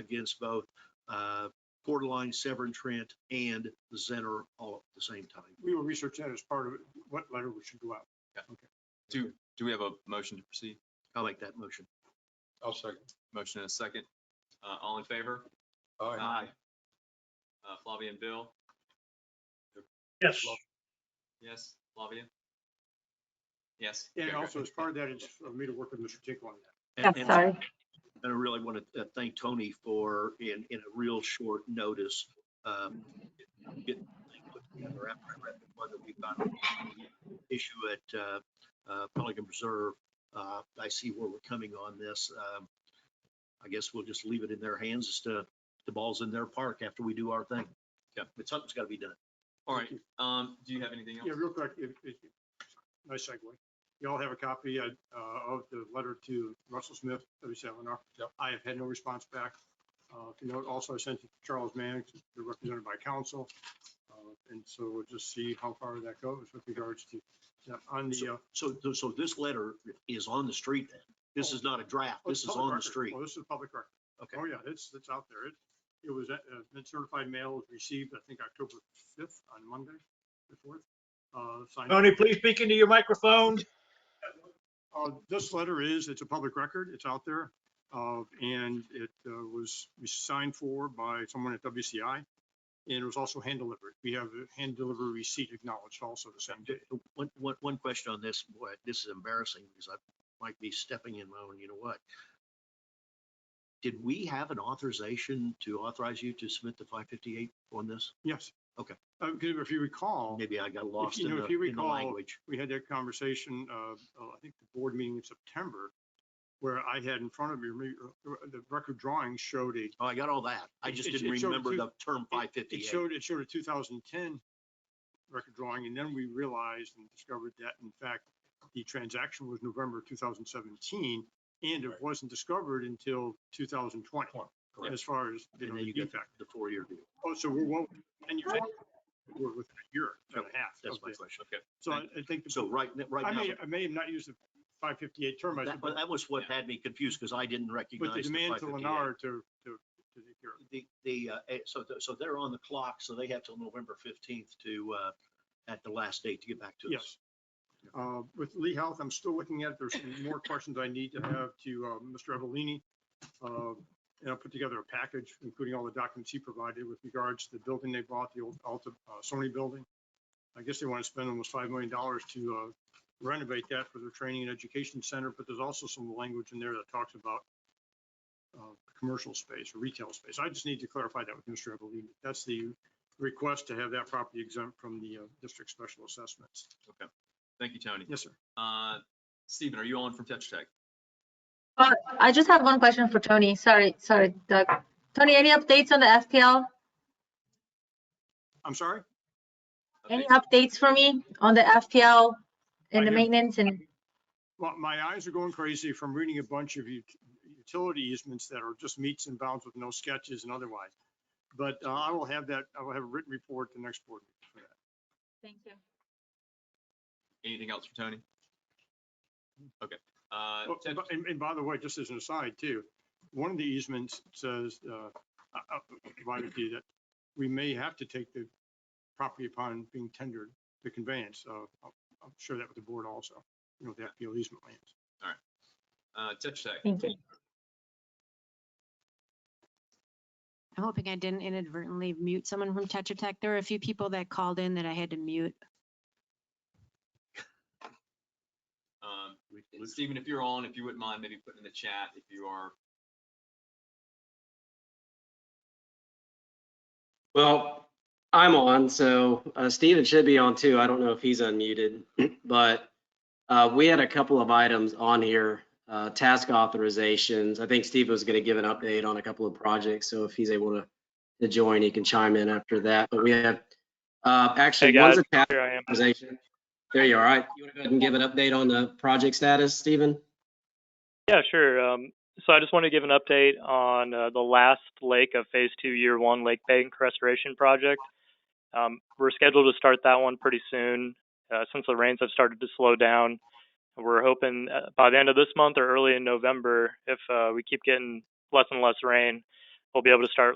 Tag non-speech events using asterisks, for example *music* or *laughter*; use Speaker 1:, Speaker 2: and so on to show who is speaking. Speaker 1: against both uh, Coeur d'Alene, Severn Trent, and Center all at the same time.
Speaker 2: We will research that as part of it, what letter we should go out.
Speaker 3: Do, do we have a motion to proceed?
Speaker 1: I'll make that motion.
Speaker 4: I'll second.
Speaker 3: Motion and a second. Uh, all in favor?
Speaker 4: Aye.
Speaker 3: Uh, Flavia and Bill?
Speaker 5: Yes,
Speaker 3: Yes, Flavia? Yes.
Speaker 2: And
Speaker 3: Okay,
Speaker 2: also
Speaker 3: good.
Speaker 2: as part of that, it's for me to work with Mr. Tinkle on that.
Speaker 1: And-
Speaker 6: I'm
Speaker 1: and-
Speaker 6: sorry.
Speaker 1: And I really want to thank Tony for, in, in a real short notice, um, getting the thing put together after I read the one that we've got an issue at uh, uh, Pelican Preserve. Uh, I see where we're coming on this. Um, I guess we'll just leave it in their hands as to, the ball's in their park after we do our thing. Yeah, but something's got to be done.
Speaker 3: All right, um, do you have anything else?
Speaker 2: Yeah, real quick, if, if, nice segue. You all have a copy uh, uh, of the letter to Russell Smith, W.C. Eleanor.
Speaker 4: Yep.
Speaker 2: I have had no response back. Uh, if you note, also I sent it to Charles Manning, they're represented by counsel. Uh, And so we'll just see how far that goes with regards to, now, on the. uh,
Speaker 1: So, so- so this letter is on the street then? This is not a draft.
Speaker 2: oh, it's
Speaker 1: This is
Speaker 2: public
Speaker 1: on the
Speaker 2: record.
Speaker 1: street.
Speaker 2: Oh, this is public record.
Speaker 1: Okay.
Speaker 2: Oh, yeah, it's, it's out there. It, it was, uh, uh, been certified mail was received, I think, October fifth on Monday, the fourth. Uh, signed.
Speaker 5: Tony, please speak into your microphone.
Speaker 2: Uh, this letter is, it's a public record, it's out there. Uh, and it uh, was signed for by someone at WCI. And it was also hand delivered. We have a hand delivery receipt acknowledged also the same day.
Speaker 1: One, one, one question on this, boy, this is embarrassing because I might be stepping in my own, you know what? Did we have an authorization to authorize you to submit the five fifty-eight on this?
Speaker 2: Yes.
Speaker 1: Okay.
Speaker 2: Uh, 'cause if you recall,
Speaker 1: Maybe I got lost
Speaker 2: you
Speaker 1: in
Speaker 2: know,
Speaker 1: the,
Speaker 2: if you
Speaker 1: in the
Speaker 2: recall,
Speaker 1: language.
Speaker 2: we had that conversation, uh, uh, I think the board meeting in September, where I had in front of me, re- uh, the record drawing showed a
Speaker 1: Oh, I got all that. I
Speaker 2: It-
Speaker 1: just
Speaker 2: it-
Speaker 1: didn't
Speaker 2: it showed
Speaker 1: remember
Speaker 2: two-
Speaker 1: the term five
Speaker 2: It
Speaker 1: fifty-eight.
Speaker 2: showed, it showed a 2010 record drawing, and then we realized and discovered that, in fact, the transaction was November 2017, and it
Speaker 4: Right.
Speaker 2: wasn't discovered until 2020,
Speaker 4: Twenty,
Speaker 3: correct.
Speaker 2: as far as, you
Speaker 1: And
Speaker 2: know,
Speaker 1: then
Speaker 2: the
Speaker 1: you get
Speaker 2: defect.
Speaker 1: the four-year deal.
Speaker 2: Oh, so we're, well, and you're, we're within a year and a half.
Speaker 1: That's
Speaker 2: of
Speaker 1: my
Speaker 2: this.
Speaker 1: question.
Speaker 3: Okay,
Speaker 2: So I I think,
Speaker 1: So right, n- right
Speaker 2: I
Speaker 1: now,
Speaker 2: may, I may have not used the 558 term, I
Speaker 1: that,
Speaker 2: said,
Speaker 1: but
Speaker 2: but
Speaker 1: that was what had me confused because I didn't
Speaker 2: but
Speaker 1: recognize.
Speaker 2: the demand to
Speaker 1: 558.
Speaker 2: Lennar to, to, to take care of it.
Speaker 1: the, the, uh, eh, so, th- so they're on the clock, so they have till November fifteenth to, uh, at the last date to get back to us.
Speaker 2: Yes. Uh, With Lee Health, I'm still looking at, it. there's some more questions I need to have to uh, Mr. Evelini. Uh, And I'll put together a package, including all the documents he provided with regards to the building they bought, the old Alta uh, Sony building. I guess they want to spend almost $5 million to uh, renovate that for their training and education center, but there's also some language in there that talks about uh, commercial space, or retail space. I just need to clarify that with Mr. Evelini. That's the request to have that property exempt from the uh, district special assessments.
Speaker 3: thank you, Tony.
Speaker 2: Yes, sir.
Speaker 3: Uh, Stephen, are you on from Tetra Tech?
Speaker 6: Uh, I just have one question for Tony. Sorry, sorry, Doug. Tony, any updates on the FPL?
Speaker 2: I'm sorry?
Speaker 6: Any
Speaker 3: Updates?
Speaker 6: updates for me on the
Speaker 2: I
Speaker 6: FPL and the
Speaker 2: have-
Speaker 6: maintenance and?
Speaker 2: Well, my eyes are going crazy from reading a bunch of ut- utility easements that are just meets and bounds with no sketches and otherwise. But uh, I will have that, I will have a written report the next board meeting for that.
Speaker 6: Thank you.
Speaker 3: Anything else for Tony? Okay, uh,
Speaker 2: Oh,
Speaker 3: Tetra-
Speaker 2: and by- And, and by the way, just as an aside too, one of the easements says, uh, I- I provided to you that we may have to take the property upon being tendered, the conveyance. So I'll, I'll share that with the board also, you know, the FPL easement lands.
Speaker 3: uh, Tetra Tech.
Speaker 6: Thank you.
Speaker 7: I'm hoping I didn't inadvertently mute someone from Tetra Tech. There were a few people that called in that I had to mute.
Speaker 3: Um,
Speaker 1: We-
Speaker 3: and
Speaker 1: we-
Speaker 3: Stephen, if you're on, if you wouldn't mind maybe putting in the chat if you are.
Speaker 8: Well, I'm on, so uh, Steven should be on too. I don't know if he's unmuted, *clears throat* but uh, we had a couple of items on here, uh, task authorizations. I think Steve was going to give an update on a couple of projects, so if he's able to to join, he can chime in after that. But we have uh,
Speaker 9: Hey
Speaker 8: actually one's
Speaker 9: guys,
Speaker 8: a task
Speaker 9: here I am.
Speaker 8: authorization. There you are. All right, you want to go ahead and give an update on the project status, Steven?
Speaker 9: Yeah, sure. Um, so I just want to give an update on uh, the last lake of Phase Two, Year One Lake Bank Restoration Project. Um, we're scheduled to start that one pretty soon. Uh, since the rains have started to slow down, we're hoping uh, by the end of this month or early in November, if uh, we keep getting less and less rain, we'll be able to start